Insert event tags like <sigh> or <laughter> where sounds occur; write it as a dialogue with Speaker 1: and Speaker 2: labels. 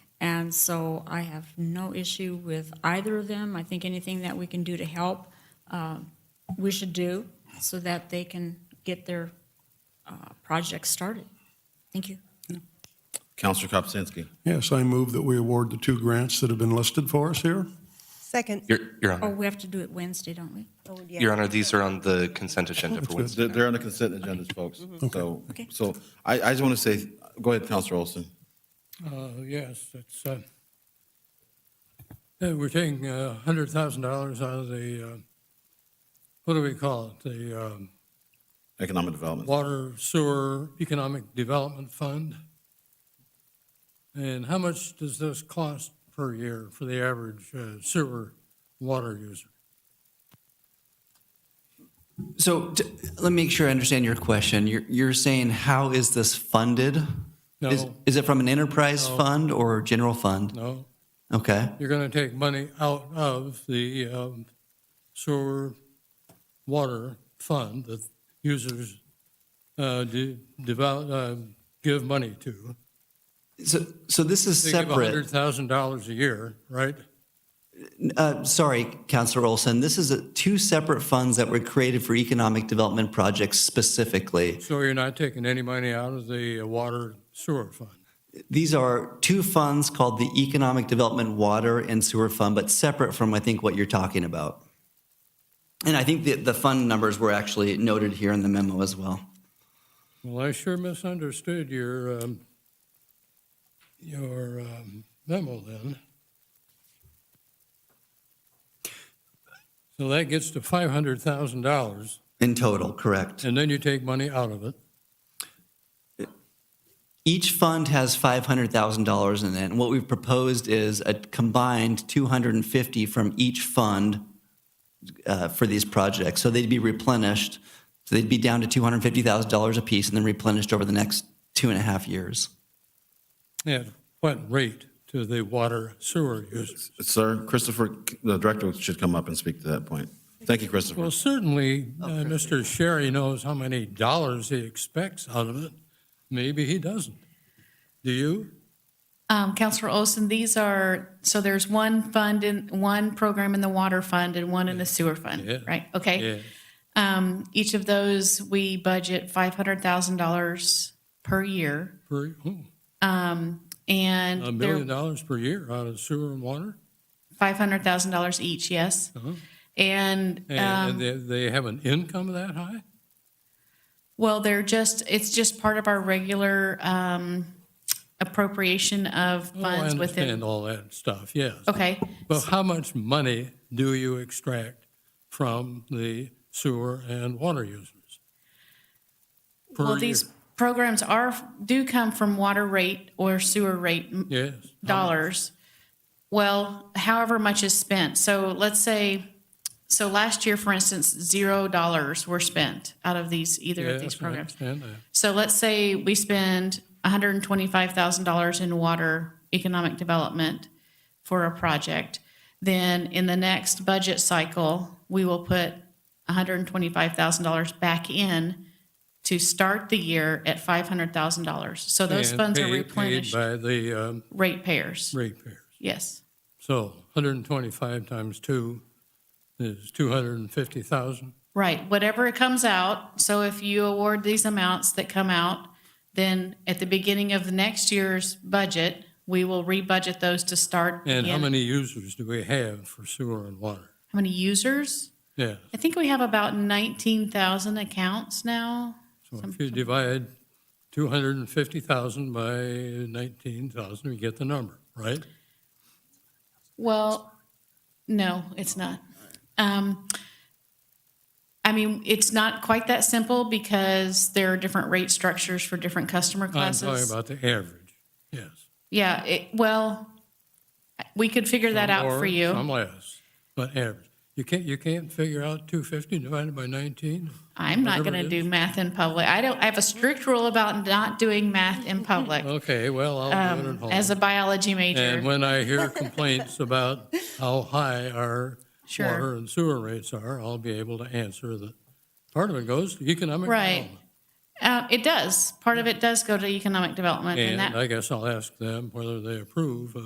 Speaker 1: And so I have no issue with either of them. I think anything that we can do to help, uh, we should do so that they can get their uh, projects started. Thank you.
Speaker 2: Counselor Kopsinski.
Speaker 3: Yes, I move that we award the two grants that have been listed for us here.
Speaker 4: Second.
Speaker 5: Your, Your
Speaker 1: Oh,
Speaker 5: Honor,
Speaker 1: we have to do it Wednesday, don't we?
Speaker 4: Oh, yeah.
Speaker 5: Your Honor, these are on the consent agenda for Wednesday.
Speaker 2: They're they're on the consent agendas, folks. So,
Speaker 1: Mm-hmm. Okay.
Speaker 2: so I, I just want to say, go ahead, Counselor Olson.
Speaker 6: Uh, Yes, it's, uh, uh, we're taking uh, $100,000 out of the, uh, what do we call it? The um,
Speaker 2: Economic Development.
Speaker 6: Water Sewer Economic Development Fund. And how much does this cost per year for the average uh, sewer water user?
Speaker 7: So t- let me make sure I understand your question. You're, you're saying, how is this funded? Is,
Speaker 6: No.
Speaker 7: is it from an enterprise
Speaker 6: No.
Speaker 7: fund or general fund?
Speaker 6: No?
Speaker 7: Okay.
Speaker 6: You're going to take money out of the um, sewer water fund that users uh, de- devout, uh, give money to.
Speaker 7: So, so this is
Speaker 6: They
Speaker 7: separate.
Speaker 6: give $100,000 a year, right?
Speaker 7: Uh, sorry, Councilor Olson. This is a, two separate funds that were created for economic development projects specifically.
Speaker 6: So you're not taking any money out of the uh, water sewer fund.
Speaker 7: These are two funds called the Economic Development Water and Sewer Fund, but separate from, I think, what you're talking about. And I think the, the fund numbers were actually noted here in the memo as well.
Speaker 6: Well, I sure misunderstood your, um, your um, memo then. So that gets to $500,000.
Speaker 7: In total, correct.
Speaker 6: And then you take money out of it.
Speaker 7: Each fund has $500,000 in it, and what we've proposed is a combined 250 from each fund uh, for these projects. So they'd be replenished, so they'd be down to $250,000 apiece and then replenished over the next two and a half years.
Speaker 6: At what rate to the water sewer users?
Speaker 2: Sir, Christopher, the director should come up and speak to that point. Thank you, Christopher.
Speaker 6: Well, certainly, uh, Mr. Sherry knows how many dollars he expects out of it. Maybe he doesn't. Do you?
Speaker 8: Um, Counselor Olson, these are, so there's one fund in, one program in the water fund and one in the sewer
Speaker 6: Yeah.
Speaker 8: fund, right? Okay.
Speaker 6: Yeah.
Speaker 8: Um, each of those, we budget five hundred thousand dollars per year.
Speaker 6: Per, oh,
Speaker 8: And
Speaker 6: a
Speaker 8: they're
Speaker 6: million dollars per year out of sewer and water?
Speaker 8: five hundred thousand dollars each, yes.
Speaker 6: Uh-huh.
Speaker 8: And,
Speaker 6: And and
Speaker 8: um,
Speaker 6: they, they have an income that high?
Speaker 8: well, they're just, it's just part of our regular, um, appropriation of
Speaker 6: Oh, I
Speaker 8: funds
Speaker 6: understand
Speaker 8: within.
Speaker 6: all that stuff, yes.
Speaker 8: Okay.
Speaker 6: But how much money do you extract from the sewer and water users? per
Speaker 8: Well,
Speaker 6: year?
Speaker 8: these programs are, do come from water rate or sewer rate m-
Speaker 6: Yes.
Speaker 8: dollars. Well, however much is spent. So let's say, so last year, for instance, zero dollars were spent out of these, either of these
Speaker 6: Yes, uh, I
Speaker 8: programs.
Speaker 6: understand that.
Speaker 8: So let's say we spend hundred and twenty-five thousand dollars in water economic development for a project. Then in the next budget cycle, we will put hundred and twenty-five thousand dollars back in to start the year at five hundred thousand dollars. So those
Speaker 6: And
Speaker 8: funds are
Speaker 6: paid- paid
Speaker 8: replenished
Speaker 6: By the um,
Speaker 8: ratepayers.
Speaker 6: ratepayers.
Speaker 8: Yes.
Speaker 6: So 125 times two is 250,000.
Speaker 8: Right, whatever it comes out, so if you award these amounts that come out, then at the beginning of the next year's budget, we will re-budget those to start.
Speaker 6: And how
Speaker 8: in-
Speaker 6: many users do we have for sewer and water?
Speaker 8: How many users?
Speaker 6: Yes.
Speaker 8: I think we have about nineteen thousand accounts now.
Speaker 6: So if you divide 250,000 by 19,000, you get the number, right?
Speaker 8: Well, no, it's not. Um, I mean, it's not quite that simple because there are different rate structures for different customer
Speaker 6: I'm
Speaker 8: classes.
Speaker 6: talking about the average, yes.
Speaker 8: Yeah, it, well, we could figure that
Speaker 6: Some
Speaker 8: out for
Speaker 6: more,
Speaker 8: you.
Speaker 6: Some less, but average. You can't, you can't figure out 250 divided by 19?
Speaker 8: I'm not
Speaker 6: Whatever
Speaker 8: going to
Speaker 6: it
Speaker 8: do math in public. I don't, I have a strict rule about not doing math in public
Speaker 6: Okay, well, I'll do it at home.
Speaker 8: Um, as a biology
Speaker 6: And
Speaker 8: major.
Speaker 6: when I
Speaker 8: <laughs>
Speaker 6: hear complaints about how high our
Speaker 8: Sure.
Speaker 6: water and sewer rates are, I'll be able to answer that. Part of it goes to economic
Speaker 8: Right.
Speaker 6: development.
Speaker 8: Uh, it does. Part of it does go to economic development and that.
Speaker 6: And I guess I'll ask them whether they approve